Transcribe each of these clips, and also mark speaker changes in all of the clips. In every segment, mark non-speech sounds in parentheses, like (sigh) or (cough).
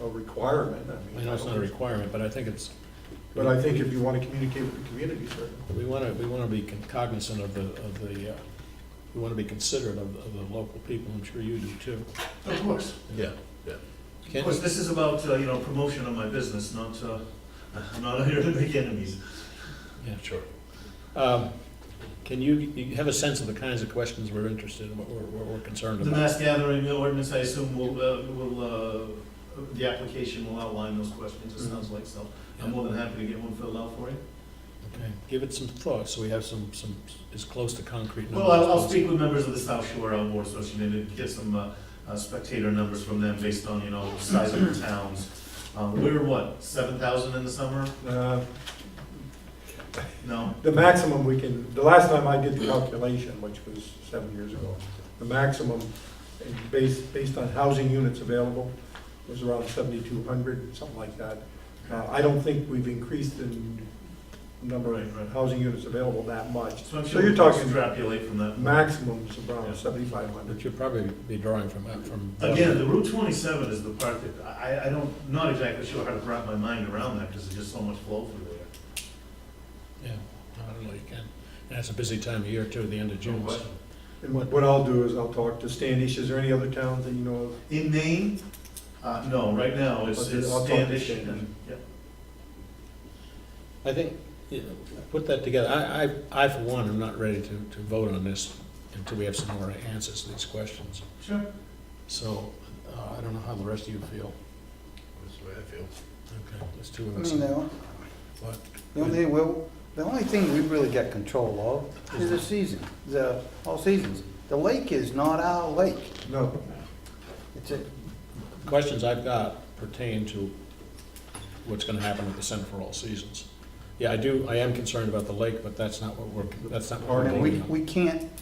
Speaker 1: a requirement, I
Speaker 2: I
Speaker 1: mean.
Speaker 2: know it's
Speaker 1: I
Speaker 2: not a
Speaker 1: don't-
Speaker 2: requirement, but I think it's.
Speaker 1: But I think if you want to communicate with the community, certainly.
Speaker 2: We want to, we want to be cognizant of the, of the, uh, we want to be considerate of, of the local people, I'm sure you do too.
Speaker 3: Of course,
Speaker 2: Yeah, yeah.
Speaker 3: of
Speaker 2: Can,
Speaker 3: course, this is about, uh, you know, promotion of my business, not, uh, (laughs) I'm not here to make enemies.
Speaker 2: yeah, sure. Um, Can you, you have a sense of the kinds of questions we're interested in, what we're, what we're concerned
Speaker 3: The
Speaker 2: about?
Speaker 3: mass gathering ordinance, I assume will, uh, will, uh, the application will outline those questions,
Speaker 2: Mm-hmm.
Speaker 3: it sounds like, so I'm more than happy to get one filled out for you.
Speaker 2: Okay, Give it some thought, so we have some, some, as close to concrete numbers.
Speaker 3: Well, I'll,
Speaker 2: as
Speaker 3: I'll speak with members of the South Shore Outdoor Association and get some uh, uh, spectator numbers from them based on, you know, size of the towns. Um, we were what, seven thousand in the summer?
Speaker 1: Uh,
Speaker 3: No?
Speaker 1: The maximum we can, the last time I did the calculation, which was seven years ago, the maximum, and based, based on housing units available, was around seventy-two hundred, something like that. Uh, I don't think we've increased the number
Speaker 3: Right, right.
Speaker 1: of housing units available that
Speaker 2: Uh-huh.
Speaker 1: much.
Speaker 3: So I'm
Speaker 1: So
Speaker 3: sure
Speaker 1: you're
Speaker 3: we can
Speaker 1: talking
Speaker 3: extrapolate from that.
Speaker 1: maximums around
Speaker 3: Yeah.
Speaker 1: seventy-five
Speaker 2: But
Speaker 1: hundred.
Speaker 2: you'll probably be drawing from, from.
Speaker 3: Again, the Route twenty-seven is the part that, I, I- I don't, not exactly sure how to wrap my mind around that, because there's just so much flow through there.
Speaker 2: Yeah, I don't know, you can. And it's a busy time of year too, the end of June. so-
Speaker 1: And what, what I'll do is I'll talk to Standish, is there any other towns that you know of?
Speaker 3: In Maine, uh, no, right now, it's,
Speaker 1: Okay,
Speaker 3: it's
Speaker 1: I'll talk to
Speaker 3: Standish
Speaker 1: Shane.
Speaker 3: and, yeah.
Speaker 2: I think, you know, put that together. I, I, I for one, am not ready to, to vote on this until we have some more answers to these questions.
Speaker 3: Sure.
Speaker 2: So, uh, I don't know how the rest of you feel.
Speaker 4: That's the way I feel.
Speaker 2: Okay, there's two
Speaker 5: I
Speaker 2: of us.
Speaker 5: mean, the on-
Speaker 2: What?
Speaker 5: the only, thing we'll- the only thing we really get control of is the season, the, all seasons. The lake is not our lake.
Speaker 1: No,
Speaker 5: It's a,
Speaker 2: Questions I've got pertain to what's gonna happen with the Center for All Seasons. Yeah, I do, I am concerned about the lake, but that's not what we're, that's not what we're
Speaker 5: I mean, we,
Speaker 2: voting on.
Speaker 5: we can't,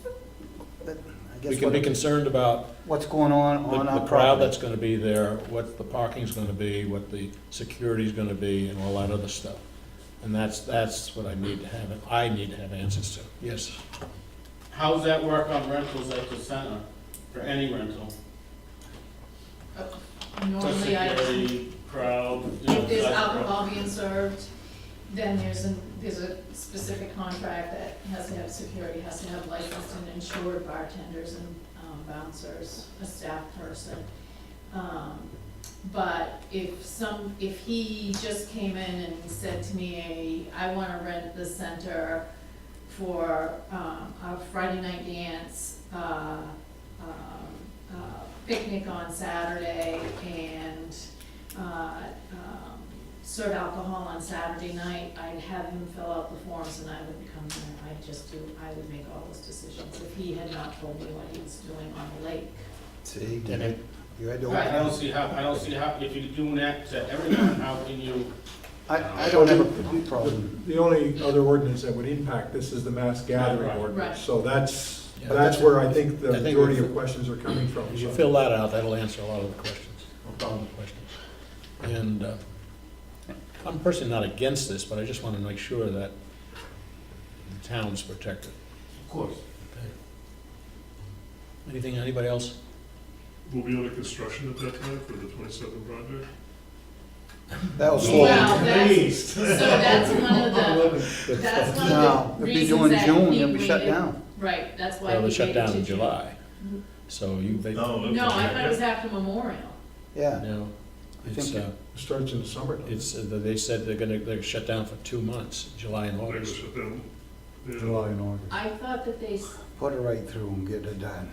Speaker 5: that- I
Speaker 2: We
Speaker 5: guess,
Speaker 2: can be
Speaker 5: what-
Speaker 2: concerned about
Speaker 5: what's going on
Speaker 2: The
Speaker 5: on
Speaker 2: the
Speaker 5: our
Speaker 2: crowd
Speaker 5: property.
Speaker 2: that's gonna be there, what the parking's gonna be, what the security's gonna be, and all that other stuff. And that's, that's what I need to have, I need to have answers to. Yes,
Speaker 6: How does that work on rentals at the center, for any rental?
Speaker 7: Normally, I,
Speaker 6: Security, crowd. you know,
Speaker 7: if there's
Speaker 6: that's-
Speaker 7: alcohol being served, then there's a, there's a specific contract that has to have security, has to have licensed and insured bartenders and um, bouncers, a staff person. Um, But if some, if he just came in and said to me, I wanna rent the center for, um, a Friday night dance, uh, um, uh, picnic on Saturday and, uh, um, serve alcohol on Saturday night, I'd have him fill out the forms and I would come there, I'd just do, I would make all those decisions if he had not told me what he was doing on the lake.
Speaker 5: See, you
Speaker 6: And
Speaker 5: had-
Speaker 6: it-
Speaker 5: you had to
Speaker 6: I
Speaker 5: open
Speaker 6: don't
Speaker 5: it.
Speaker 6: see how, I don't see how, if you're doing that to everyone, how can you,
Speaker 5: I, I don't have a problem.
Speaker 1: The only other ordinance that would impact this is the mass gathering
Speaker 6: Right.
Speaker 1: ordinance.
Speaker 7: Right.
Speaker 1: So that's,
Speaker 2: Yeah.
Speaker 1: that's where I think the
Speaker 2: I think
Speaker 1: majority
Speaker 2: we-
Speaker 1: of questions are coming from.
Speaker 2: if you
Speaker 1: so.
Speaker 2: fill that out, that'll answer a lot of the questions, all the questions. And uh, I'm personally not against this, but I just wanna make sure that the town's protected.
Speaker 3: Of course.
Speaker 2: Okay. Anything, anybody else?
Speaker 8: Will be under construction at that time for the twenty-seven project?
Speaker 5: That'll slow.
Speaker 7: Wow. that's-
Speaker 3: Please.
Speaker 7: So that's one (laughs) of the, that's one
Speaker 5: No,
Speaker 7: of the
Speaker 5: if you
Speaker 7: reasons
Speaker 5: do in
Speaker 7: that
Speaker 5: June,
Speaker 7: he
Speaker 5: you'll be shut
Speaker 7: waited-
Speaker 5: down.
Speaker 7: Right, that's why he
Speaker 2: Well, they
Speaker 7: waited
Speaker 2: shut down in
Speaker 7: to June.
Speaker 2: July, so you, they.
Speaker 3: No,
Speaker 7: No, I thought it was after Memorial.
Speaker 5: Yeah,
Speaker 2: No,
Speaker 5: I
Speaker 2: it's,
Speaker 5: think-
Speaker 2: uh,
Speaker 1: It Starts in the summer. doesn't it?
Speaker 2: it's, uh, they said they're gonna, they're shut down for two months, July and
Speaker 8: They're gonna
Speaker 2: August.
Speaker 8: shut down. Yeah.
Speaker 5: July and August.
Speaker 7: I thought that they, s-
Speaker 5: Put it right through and get it done.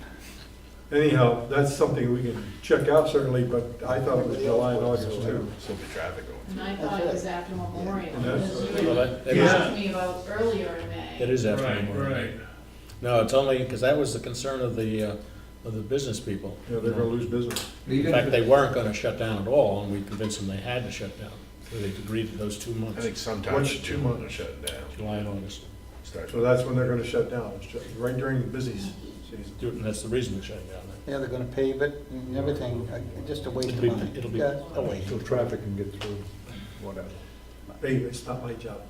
Speaker 1: Anyhow, that's something we can check out certainly, but I thought it was July and August too.
Speaker 4: Still the traffic going.
Speaker 7: and I thought it was after Memorial.
Speaker 1: And that's-
Speaker 7: because
Speaker 2: Well,
Speaker 7: you
Speaker 2: that- that is-
Speaker 7: Asked me about earlier in May.
Speaker 2: It is after
Speaker 3: Right,
Speaker 2: Memorial Day.
Speaker 3: right.
Speaker 2: No, it's only, because that was the concern of the, uh, of the business people.
Speaker 1: You know, they're gonna lose business.
Speaker 2: In fact, they weren't gonna shut down at all, and we convinced them they had to shut down, so they agreed to those two
Speaker 4: I
Speaker 2: months,
Speaker 4: think sometimes
Speaker 1: What's
Speaker 4: in
Speaker 1: two
Speaker 4: June
Speaker 1: months?
Speaker 4: they're shutting down.
Speaker 2: July and August.
Speaker 4: Start-
Speaker 1: So that's when they're gonna shut down, It's ju- right during the busy season.
Speaker 2: And that's the reason they're shutting down.
Speaker 5: Yeah, they're gonna pave it and everything, uh, just a waste
Speaker 2: It'll
Speaker 5: of
Speaker 2: be,
Speaker 5: money.
Speaker 2: it'll be,
Speaker 5: Yeah, a
Speaker 2: away.
Speaker 5: waste.
Speaker 1: traffic can get through, whatever. Hey, it's not my job.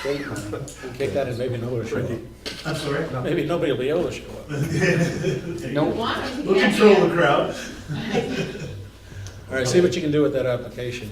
Speaker 5: State money.
Speaker 2: Take that and maybe nobody will show up.
Speaker 3: I'm sorry?
Speaker 2: Maybe nobody will be able to show up.
Speaker 3: There you
Speaker 5: No.
Speaker 3: go.
Speaker 7: Why? (laughs)
Speaker 3: We'll control the crowd.
Speaker 2: All right, see what you can do with that application.